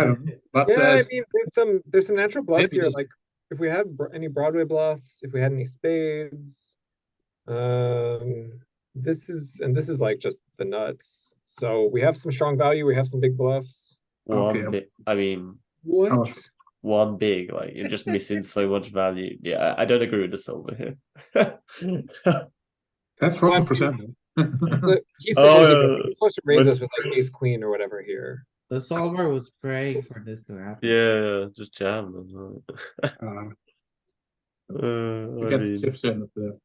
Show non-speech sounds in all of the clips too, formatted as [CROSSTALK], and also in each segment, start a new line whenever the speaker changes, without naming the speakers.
I don't know, but
Yeah,
uh,
I mean, there's some there's some natural bluffs
maybe
here.
just-
Like if we had bro- any Broadway bluffs, if we had any spades, um, this is and this is like just the nuts. So we have some strong value. We have some big bluffs.
One,
Okay.
bi- I mean,
What?
much?
one big, like you're just missing so much value. Yeah, I I don't agree with the solver here. oh,
that's forty percent.
Look, he's,
Oh,
supposed
yeah,
to,
yeah.
he's supposed to raise
Let's-
us with like ace queen or whatever here.
The solver was praying for this to happen.
[LAUGHS] yeah, just jam. and, uh,
You
I
get the
mean,
chips in at the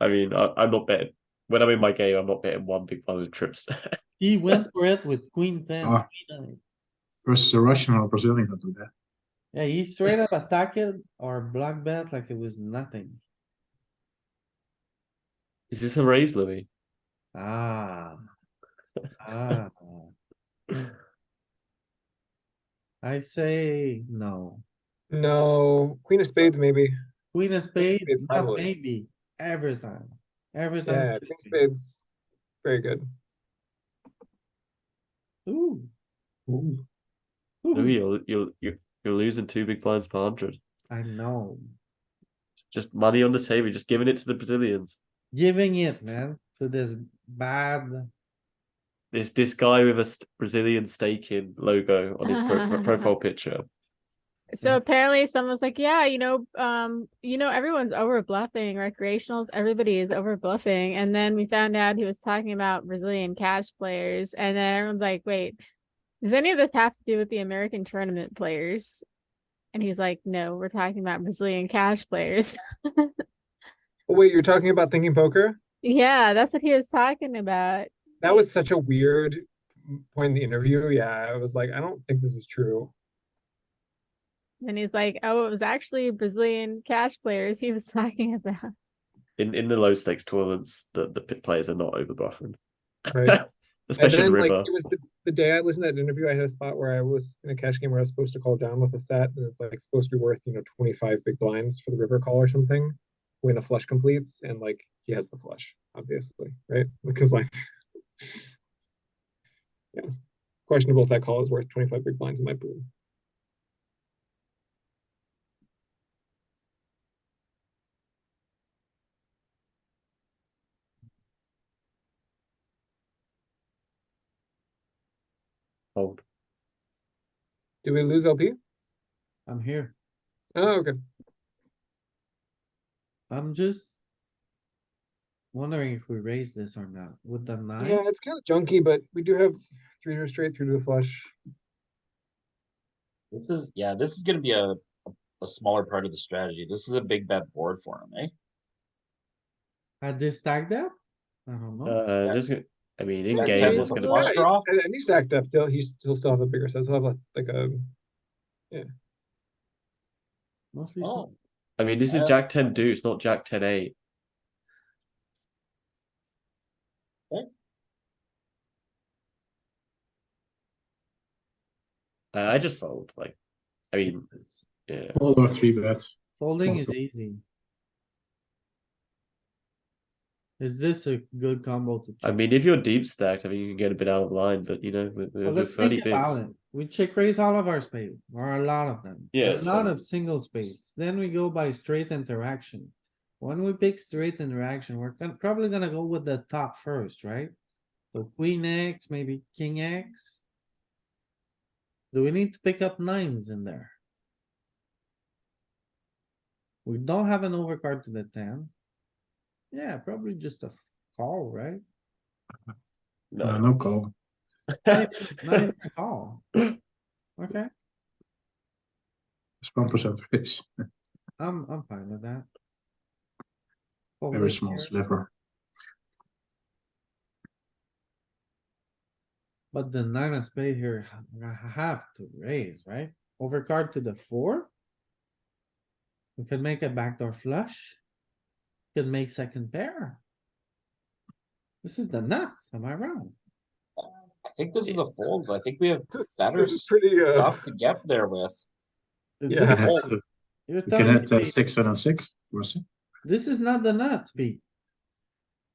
I mean, I, I'm not betting. When I'm in my game, I'm not betting one big blind with trips. [LAUGHS]
He went for it with queen ten.
Ah.
queen nine.
versus a Russian or Brazilian that do that.
Yeah, he straight up attacked it or block bet like it was nothing.
Is this a raise, Louis?
Ah. Ah. I say no.
No, queen of spades maybe.
Queen of spades,
spades,
not
probably.
maybe, every time, every
Yeah,
time.
queen of spades, very good.
Ooh.
Ooh.
Ooh.
Louis, you're, you're, you're, you're losing two big blinds per 100.
I know,
Just money on the table, just giving it to the Brazilians.
giving it, man, to this bad,
This this guy with a st- Brazilian staking logo on his pro- pro- [LAUGHS] profile picture.
Yeah.
So apparently someone's like, yeah, you know, um, you know, everyone's over bluffing, recreationals, everybody is over bluffing. And then we found out he was talking about Brazilian cash players. And then everyone's like, wait, does any of this have to do with the American tournament players? And he was like, no, we're talking about Brazilian cash players. [LAUGHS]
Oh, wait, you're talking about thinking poker?
yeah, that's what he was talking about.
That was such a weird point in the interview. Yeah, I was like, I don't think this is true.
And he's like, oh, it was actually Brazilian cash players he was [LAUGHS] talking about.
in in the low stakes tournaments the, the pit players are not over bluffing [LAUGHS]
Right. And
especially
then, like,
river
it was the, the day I listened to that interview, I had a spot where I was in a cash game where I was supposed to call down with a set, and it's like supposed to be worth, you know, 25 big blinds for the river call or something when a flush completes, and like he has the flush, obviously, right? [LAUGHS] Because, like, yeah, questionable if that call is worth 25 big blinds in my pool.
Fold.
Do we lose LP?
I'm here,
Oh, okay.
I'm just. Wondering if we raise this or not, with the
Yeah,
nine,
it's kind of junky, but we do have three to a straight through to the flush.
This is, yeah, this is gonna be a, a- a smaller part of the strategy. This is a big bet board for him, eh?
had this stacked up? I don't know,
uh just i mean in
Yeah,
game
Table's
it's
a
gonna
flush.
be
Yeah,
draw?
And, and he's stacked up. He'll, he's, he'll still have a bigger set. So he'll have like um, a
mostly.
Oh,
small.
i mean this is
Uh,
jack 10 deuce not jack 10 8
Okay.
I I just fold, like, I mean, yeah,
All our three bets.
Folding is easy. Is this a good combo to
I
check?
mean, if you're deep stacked, I mean, you can get a bit out of line, but you know, with,
Well,
with, with
let's think
thirty
about
bigs,
it. We check raise all of our spades, or a lot of them.
Yeah,
A lot of
spades.
single spades, then we go by straight interaction. When we pick straight interaction, we're gon- probably gonna go with the top first, right? So queen X, maybe king X. Do we need to pick up nines in there? We don't have an overcard to the ten. Yeah, probably just a f- call, right?
No,
no,
Uh, no call.
Not even- not even a call. Okay.
It's one percent raise.
I'm, I'm fine with that.
Very small
slip.
sliver.
But the nine of spade here, I have to raise, right? Overcard to the four. We could make a backdoor flush. Could make second pair. This is the nuts, am I wrong?
I think this is a fold. I think we have
This,
That
this
is
is pretty. Uh,
stuff to get there with.
You
Yeah.
can hit, uh,
You're
you can
telling
hit uh,
me
six and a six for a six.
this is not the nuts, Pete.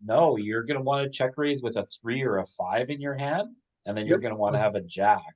No, you're gonna wanna check raise with a three or a five in your hand, and then you're
Yep.
gonna wanna have a jack.